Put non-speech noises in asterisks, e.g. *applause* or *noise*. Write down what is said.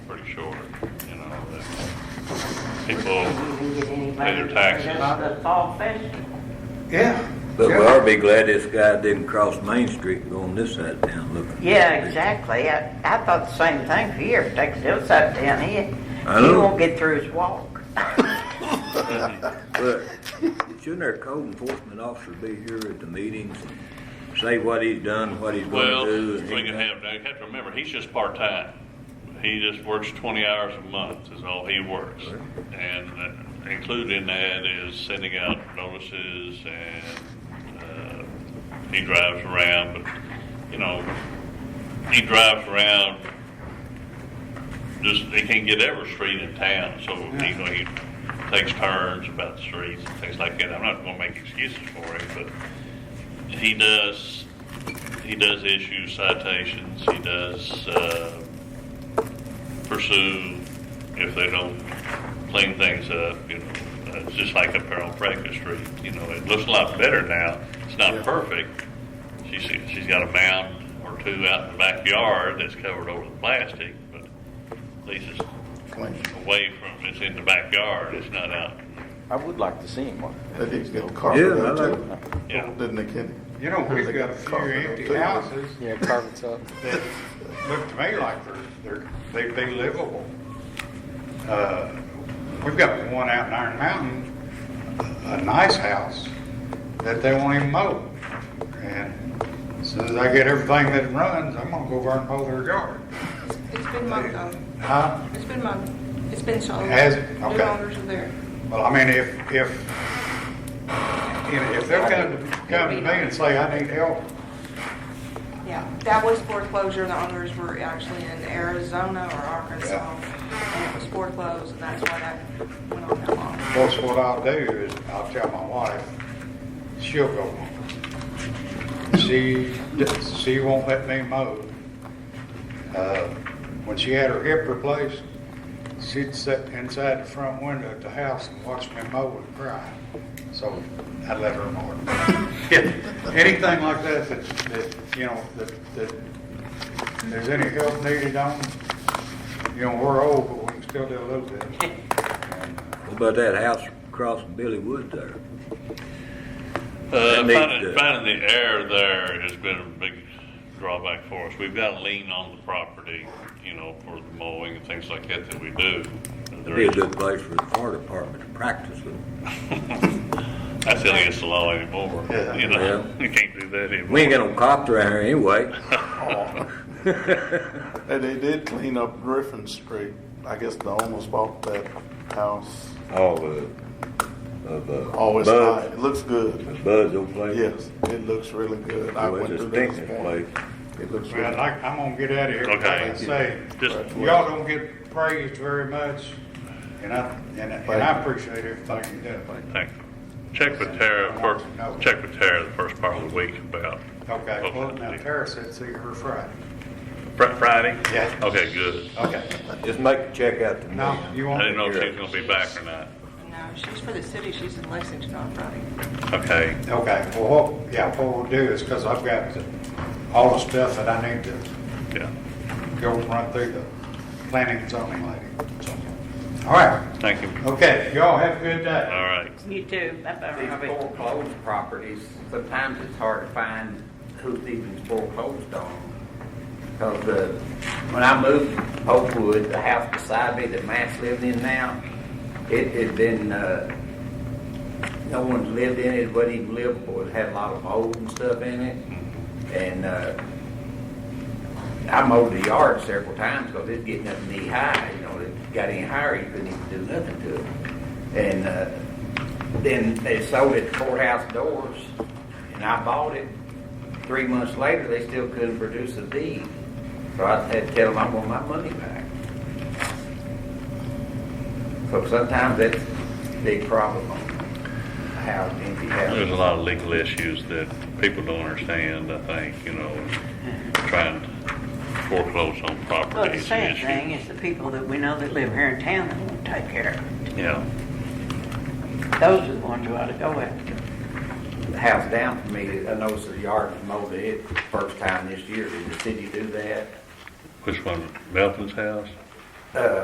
short, you know, that people, Pay their taxes. The fall session, Yeah. But we Yeah. ought to be glad this guy didn't cross Main Street and go on this side of town looking. yeah, exactly, I, I thought the same thing for years, takes those up down here. I He know. won't get through his walk. But shouldn't our code enforcement officer be here at the meetings and say what he's done, what he's well, going to do? we can and everything? have, you have to remember, he's just part-time. He just works twenty hours a month is all he works. And uh, included in that is sending out notices and, uh, he drives around, but, you know, he drives around just they can't get every street in town, so you know he takes turns about the streets and things like that. I'm not going to make excuses for him, but he does he does issue citations. He does uh, pursue if they don't clean things up. You know, uh, it's just like up there on Franklin Street. You know, it looks a lot better now. It's not perfect. She's she's got a mound or two out in the backyard that's covered over with plastic, but at least it's away from it's in the backyard. It's not out. I would like to see him one. They need to get a Yeah, carpet I up like- too. Yeah. Didn't they, Kenny? You know, we've got a few empty houses Yeah, carpet's up. *laughs* that look to me like they're, they're, they'd be livable. Uh, We've got one out in Iron Mountain, a nice house, that they won't even mow. And as soon as I get everything that runs, I'm gonna go over and mow their yard. It's been mowed on. Huh? It's been mowed. It's been sold. Has it? Okay. New owners are there. Well, I mean, if, if, you know, if they're gonna come to me and say, I need help, Yeah. That was foreclosure. The owners were actually in Arizona or Arkansas. And it was foreclosed and that's why that went on that long. Of course, what I'll do is, I'll tell my wife, she'll go. She, she won't let me mow. Uh, When she had her hip replaced, she'd sit inside the front window at the house and watch me mow and cry. So I let her mow *laughs* it. Anything like that, that, that, you know, that, that there's any help needed on, you know, we're old, but we can still do a little bit. What about that house across from Billy Wood there? Uh, And they- finding, finding the air there has been a big drawback for us. We've got to lean on the property, you know, for the mowing and things like that that we do. It'd be a good place for the fire department to practice it. That's against the law anymore. Yeah. You know, *laughs* Yeah. you can't do that anymore. We ain't got no cops around here anyway. And they did clean up Griffin Street. I guess the owners bought that house. All the, of the. Oh, it's bugs- high. It looks good. The buds don't play. Yes, it looks really good. I Well, went it's a through there stinking this morning. place. It looks really Well, good. I, I'm gonna get out of here, like Okay. I say, Just- y'all don't get praised very much, and I, and I- and I appreciate everything you do. Thank you. Check with Tara for, check with Tara the first part of the week about. Okay, well, now Tara said see her Friday. Fri- Friday? Yeah. Okay, good. Okay, Just make a check out to me. no, you I didn't know won't, if she was gonna be back or not. No, she's for the city. She's in Lexington on Friday. Okay. okay, well, what, yeah, what we'll do is, cause I've got the- all the stuff that I need to Yeah. go run through the planning and zoning lady. So, All right, Thank you. okay, y'all have a good All day. right. You too, bye-bye, These Robbie. foreclosed properties, sometimes it's hard to find who's even foreclosed on. Because uh, when I moved to Oakwood, the house beside me that Matt's living in now, it had been, uh, no one lived in it, it wasn't even livable, it had a lot of mold and stuff in it. And uh, I mowed the yard several times because it's getting up knee high, you know, it got any higher, you couldn't even do nothing to it. And, uh, then they sold it to courthouse doors, and I bought it. Three months later, they still couldn't produce a deed, so I had to tell them I want my money back. So sometimes that's a big problem on how empty There's a houses. lot of legal issues that people don't understand, I think, you know, trying to foreclose on Well, the properties and sad thing issues. is the people that we know that live here in town that won't take care of it. Yeah. Those are the ones you ought to go after. The house down from me, I noticed the yard was mowed it first time this year. Did the city do that? Which one? Melton's house? Uh,